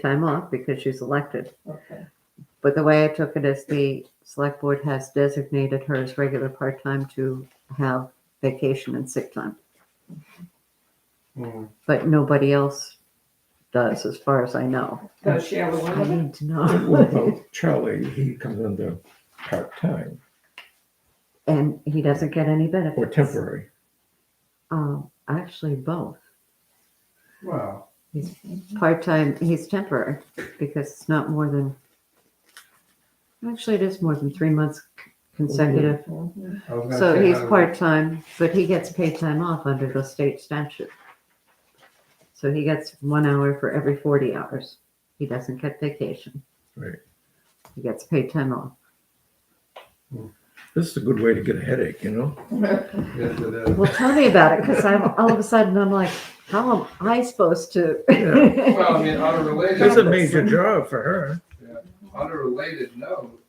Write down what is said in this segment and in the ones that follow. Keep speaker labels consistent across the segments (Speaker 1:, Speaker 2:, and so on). Speaker 1: time off because she's elected.
Speaker 2: Okay,
Speaker 1: But the way I took it is the select board has designated her as regular part-time to have vacation and sick time.
Speaker 3: Mm.
Speaker 1: But nobody else does, as far as I know.
Speaker 2: does she have a
Speaker 1: I
Speaker 2: limit?
Speaker 1: need to
Speaker 3: What
Speaker 1: know.
Speaker 3: about Charlie? He comes under part-time
Speaker 1: And he doesn't get any benefits.
Speaker 3: or temporary.
Speaker 1: Um, actually, both.
Speaker 4: Well,
Speaker 1: Part-time, he's temporary because it's not more than, actually, it is more than three months
Speaker 3: Oh,
Speaker 1: consecutive.
Speaker 2: Mhm.
Speaker 4: I was gonna
Speaker 1: So
Speaker 4: say,
Speaker 1: he's
Speaker 4: how
Speaker 3: uh,
Speaker 4: do we-
Speaker 1: part-time, but he gets paid time off under the state statute. So he gets one hour for every forty hours. He doesn't get vacation.
Speaker 3: Right.
Speaker 1: He gets paid time off.
Speaker 3: This is a good way to get a headache, you know?
Speaker 4: Yes, it is.
Speaker 1: Well, tell me about it, because I'm, all of a sudden, I'm like, how am I supposed to?
Speaker 3: Yeah.
Speaker 4: Well, I mean, on a
Speaker 3: It's a
Speaker 4: related,
Speaker 3: major job for her.
Speaker 4: on a related note,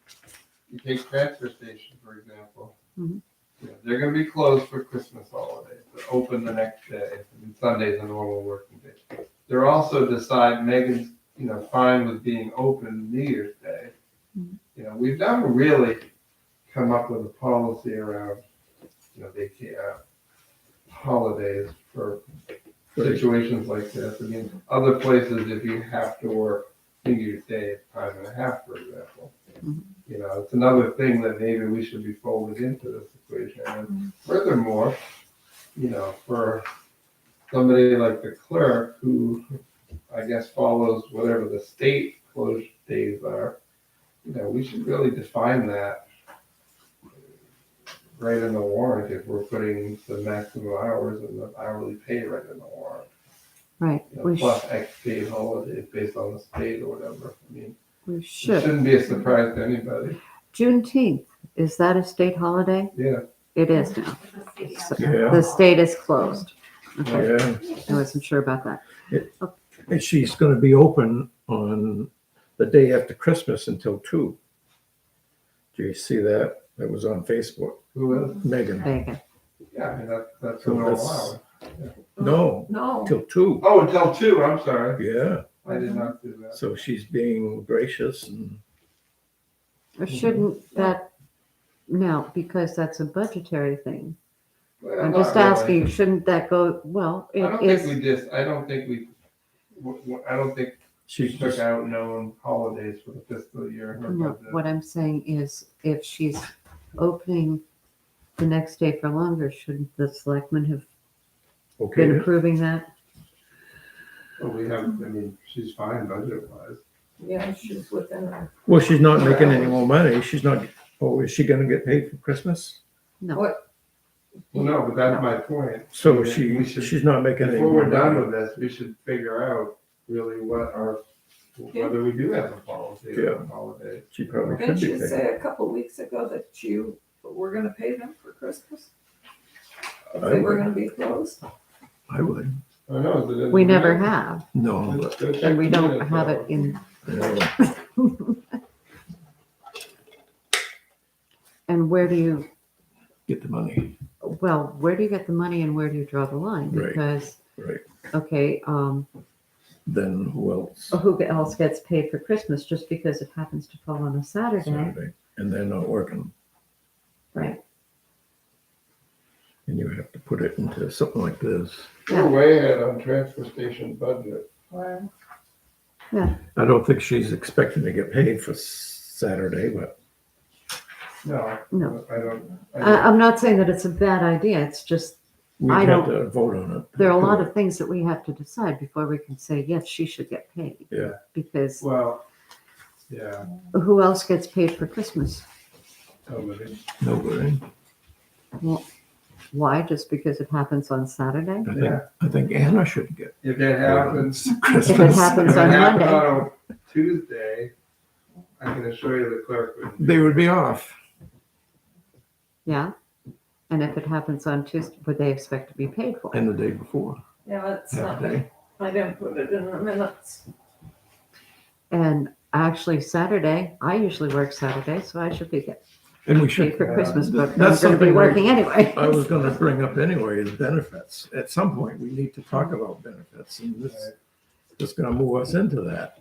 Speaker 4: you take transfer station, for example.
Speaker 1: Mhm.
Speaker 4: Yeah, They're gonna be closed for Christmas holidays, but open the next day, and Sunday's a normal working day. They're also decide Megan's, you know, fine with being open New Year's Day.
Speaker 1: Mhm.
Speaker 4: You know, we've never really come up with a policy around, you know, vaca- uh holidays for
Speaker 3: But
Speaker 4: situations like this. I mean, other places, if you have to work New Year's Day, it's time and a half, for example.
Speaker 1: Mhm.
Speaker 4: You know, it's another thing that maybe we should be folded into this equation.
Speaker 1: Mm-hmm.
Speaker 4: And furthermore, you know, for somebody like the clerk who, I guess, follows whatever the state closed days are, you know, we should really define that right in the warrant if we're putting the maximum hours and the hourly pay right in the warrant
Speaker 1: Right,
Speaker 4: you know,
Speaker 1: we, sh-
Speaker 4: plus X paid holidays based on the state or whatever. I mean,
Speaker 1: we
Speaker 4: it
Speaker 1: should.
Speaker 4: shouldn't be a surprise to anybody.
Speaker 1: Juneteenth, is that a state holiday?
Speaker 4: Yeah,
Speaker 1: It is now. So
Speaker 3: Yeah.
Speaker 1: The state is closed. Okay,
Speaker 3: Yeah,
Speaker 1: I wasn't sure about that.
Speaker 3: and she's gonna be open on the day after Christmas until two. Do you see that? That was on Facebook.
Speaker 4: who is?
Speaker 3: Megan,
Speaker 1: There you go.
Speaker 4: Yeah, I mean, that, that's a
Speaker 3: So
Speaker 4: normal
Speaker 3: that's-
Speaker 4: hour.
Speaker 3: no,
Speaker 2: No.
Speaker 3: till two.
Speaker 4: Oh, until two, I'm sorry.
Speaker 3: Yeah,
Speaker 4: I did not do that.
Speaker 3: so she's being gracious and
Speaker 1: Or Shouldn't that, now, because that's a budgetary thing.
Speaker 4: Well,
Speaker 1: I'm
Speaker 4: not
Speaker 1: just
Speaker 4: really.
Speaker 1: asking, shouldn't that go, well,
Speaker 4: I don't
Speaker 1: it
Speaker 4: think we
Speaker 1: is,
Speaker 4: just, I don't think we, w- w- I don't think
Speaker 3: she's
Speaker 4: she took
Speaker 3: just,
Speaker 4: out known holidays for the fiscal year. in her
Speaker 1: no,
Speaker 4: budget.
Speaker 1: what I'm saying is if she's opening the next day for longer, shouldn't the selectmen have been
Speaker 3: okay,
Speaker 1: approving that?
Speaker 4: But we have, I mean, she's fine budget wise.
Speaker 2: Yeah, she's within her.
Speaker 3: well, she's not making any more money. She's not, oh, is she gonna get paid for Christmas?
Speaker 1: No,
Speaker 2: What,
Speaker 4: Well, no, but that's my point.
Speaker 3: So
Speaker 4: Yeah,
Speaker 3: she,
Speaker 4: we should-
Speaker 3: she's not making any.
Speaker 4: Before we're
Speaker 3: more
Speaker 4: done
Speaker 3: money.
Speaker 4: with this, we should figure out really what our, whether we do have a policy
Speaker 3: Yeah.
Speaker 4: on holidays.
Speaker 3: She probably
Speaker 2: didn't
Speaker 3: could be
Speaker 2: you
Speaker 3: paid.
Speaker 2: say a couple weeks ago that you were gonna pay them for Christmas? If
Speaker 3: I
Speaker 2: they were
Speaker 3: would.
Speaker 2: gonna be closed?
Speaker 3: I would.
Speaker 4: I know, but it-
Speaker 1: we never have,
Speaker 3: No, but,
Speaker 1: and we don't have it in,
Speaker 3: no.
Speaker 1: and where do you,
Speaker 3: get the money.
Speaker 1: well, where do you get the money and where do you draw the line?
Speaker 3: Right,
Speaker 1: Because,
Speaker 3: right.
Speaker 1: okay, um,
Speaker 3: Then who else?
Speaker 1: who else gets paid for Christmas just because it happens to fall on a Saturday?
Speaker 3: Saturday. And they're not working.
Speaker 1: Right.
Speaker 3: And you have to put it into something like this.
Speaker 4: We're way ahead on transfer station budget.
Speaker 2: Well,
Speaker 3: I don't think she's expecting to get paid for Saturday, but
Speaker 4: No.
Speaker 1: No. Uh,
Speaker 4: I don't.
Speaker 1: I,
Speaker 4: I don't-
Speaker 1: I'm not saying that it's a bad idea, it's just,
Speaker 3: we
Speaker 1: I
Speaker 3: have
Speaker 1: don't-
Speaker 3: to vote on it.
Speaker 1: there are a lot of things that we have to decide before we can say, yes, she should get paid.
Speaker 3: Yeah.
Speaker 1: Because
Speaker 4: Well, yeah,
Speaker 1: who else gets paid for Christmas?
Speaker 4: nobody.
Speaker 3: Nobody.
Speaker 1: Why? Just because it happens on Saturday?
Speaker 3: I think,
Speaker 4: Yeah.
Speaker 3: I think Anna should get.
Speaker 4: If it
Speaker 3: paid on
Speaker 4: happens,
Speaker 3: Christmas.
Speaker 4: if
Speaker 1: happens
Speaker 4: it
Speaker 1: on
Speaker 4: happened
Speaker 1: Monday.
Speaker 4: on a Tuesday, I can assure you the clerk would.
Speaker 3: They would be off.
Speaker 1: Yeah. And if it happens on Tuesday, would they expect to be paid for it?
Speaker 3: And the day before,
Speaker 2: yeah, it's
Speaker 3: half
Speaker 2: not,
Speaker 3: day.
Speaker 2: I didn't put it in the minutes.
Speaker 1: And actually Saturday, I usually work Saturday, so I should be get
Speaker 3: And we
Speaker 1: paid
Speaker 3: should. uh,
Speaker 1: for Christmas, but I'm
Speaker 3: That's
Speaker 1: gonna be
Speaker 3: something we-
Speaker 1: working anyway.
Speaker 3: I was gonna bring up anyway is benefits. At some point, we need to talk about benefits and this, this is gonna move us into that.